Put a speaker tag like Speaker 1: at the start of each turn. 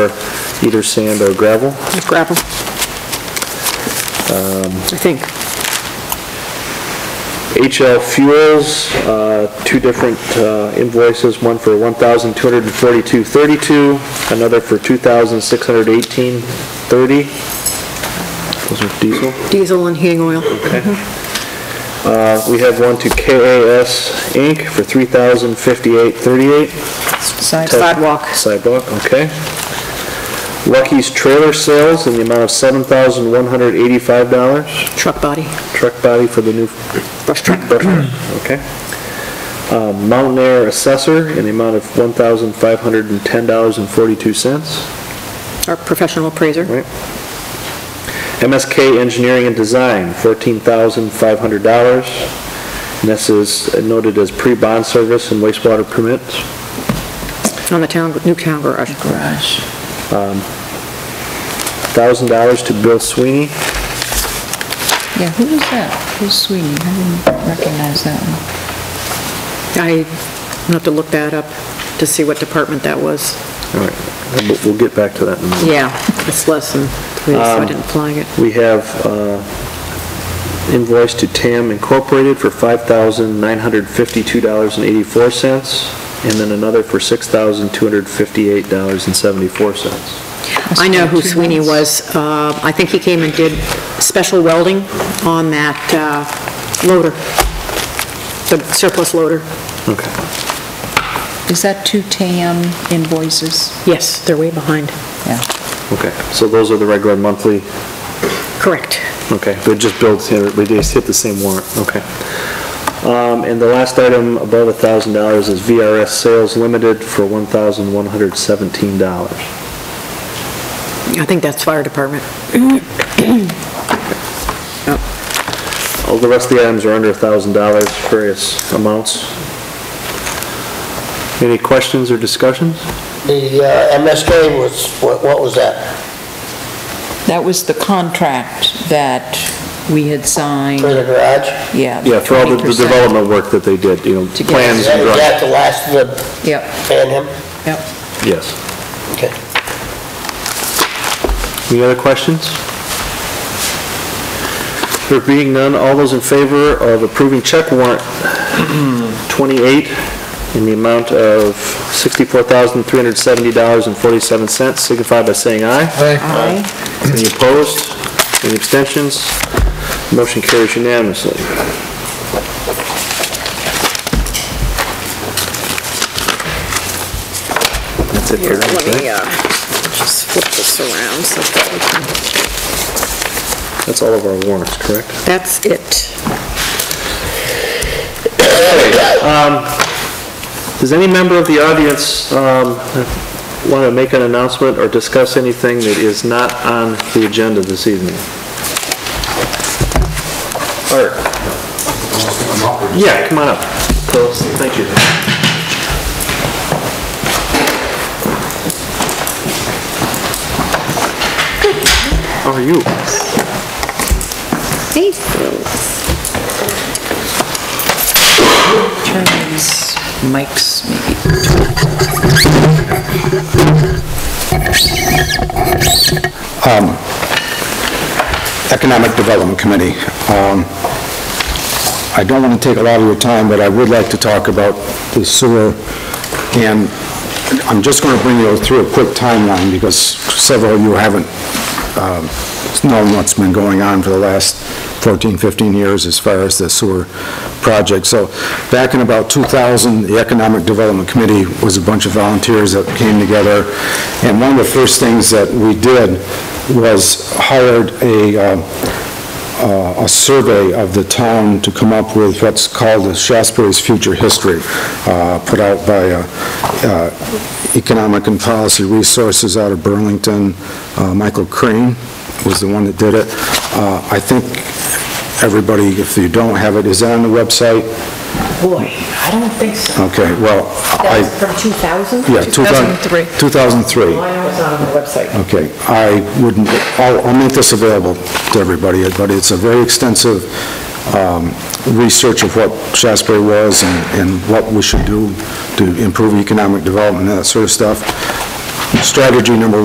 Speaker 1: either sand or gravel.
Speaker 2: gravel. I think.
Speaker 1: HL Fuels, uh, two different uh, invoices, one for 1242 another for 2618 Those are diesel.
Speaker 2: Diesel and heating oil.
Speaker 1: Uh, We have one to KAS Inc. for 3058 38
Speaker 2: Sidewalk.
Speaker 1: Sidewalk, okay. Lucky's Trailer Sales in the amount of $7,185.
Speaker 2: Truck body.
Speaker 1: Truck body for the new... Brush truck. Okay. Uh, Mountain Air Assessor in the amount of $1,510.42.
Speaker 2: Our professional appraiser.
Speaker 1: Right. MSK Engineering and Design, $14,500. And this is noted as pre-bond service and wastewater permits.
Speaker 2: On the town, new town garage.
Speaker 3: Garage.
Speaker 1: $1,000 to Bill Sweeney.
Speaker 3: Yeah, who was that? Who's Sweeney? I didn't recognize that one.
Speaker 2: I will have to look that up to see what department that was.
Speaker 1: All right, we'll- we'll get back to that in a minute.
Speaker 2: Yeah, it's less than three, so I didn't flag it.
Speaker 1: We have uh, invoice to TAM Incorporated for $5,952.84, and then another for $6,258.74.
Speaker 2: I know who
Speaker 3: Two
Speaker 2: Sweeney
Speaker 3: months.
Speaker 2: was. Uh, I think he came and did special welding on that uh, loader, the surplus loader.
Speaker 1: Okay.
Speaker 3: Is that two TAM invoices?
Speaker 2: Yes, they're way behind.
Speaker 3: Yeah.
Speaker 1: Okay, so those are the regular monthly,
Speaker 2: Correct.
Speaker 1: okay, but it just builds, here, we just hit the same warrant, okay. Um, And the last item above $1,000 is VRS Sales Limited for $1,117.
Speaker 2: I think that's fire department.
Speaker 1: All the rest of the items are under $1,000, various amounts. Any questions or discussions?
Speaker 4: The uh, MSK was, what what was that?
Speaker 3: That was the contract that we had signed,
Speaker 4: For the garage?
Speaker 3: yeah.
Speaker 1: Yeah, for all the the
Speaker 3: 20%.
Speaker 1: development work that they did, you know,
Speaker 3: To get-
Speaker 1: plans
Speaker 4: Is
Speaker 1: and drawings.
Speaker 4: that the last of the
Speaker 3: Yep,
Speaker 4: fan him?
Speaker 3: yep.
Speaker 1: Yes.
Speaker 4: Okay.
Speaker 1: Any other questions? There being none, all those in favor of approving check warrant 28 in the amount of $64,370.47 signify by saying aye.
Speaker 3: Aye.
Speaker 1: Any opposed? Any abstentions? Motion carries unanimously. That's it for
Speaker 2: Let me
Speaker 1: tonight.
Speaker 2: uh, just flip this around so that we can...
Speaker 1: That's all of our warrants, correct?
Speaker 2: That's it.
Speaker 1: Does any member of the audience want to make an announcement or discuss anything that is not on the agenda this evening? Art? Yeah, come on up. Close. Thank you. How are you?
Speaker 3: Turn these mics maybe.
Speaker 5: Economic Development Committee. Um, I don't want to take a lot of your time, but I would like to talk about the sewer, and I'm just going to bring you through a quick timeline, because several of you haven't um, known what's been going on for the last 14, 15 years as far as the sewer project. So back in about 2000, the Economic Development Committee was a bunch of volunteers that came together, and one of the first things that we did was hired a um, uh, a survey of the town to come up with what's called the Shasbury's Future History, uh, put out by uh, uh, Economic and Policy Resources out of Burlington. Uh, Michael Crane was the one that did it. Uh, I think everybody, if you don't have it, is it on the website?
Speaker 6: Boy, I don't think so.
Speaker 5: Okay, well,
Speaker 6: That
Speaker 5: I,
Speaker 6: was from 2000?
Speaker 5: yeah, 2003. 2003.
Speaker 6: Well, I know it's not on the website.
Speaker 5: Okay, I wouldn't, I'll, I'll make this available to everybody, but it's a very extensive um, research of what Shasbury was and, and what we should do to improve economic development and that sort of stuff. Strategy number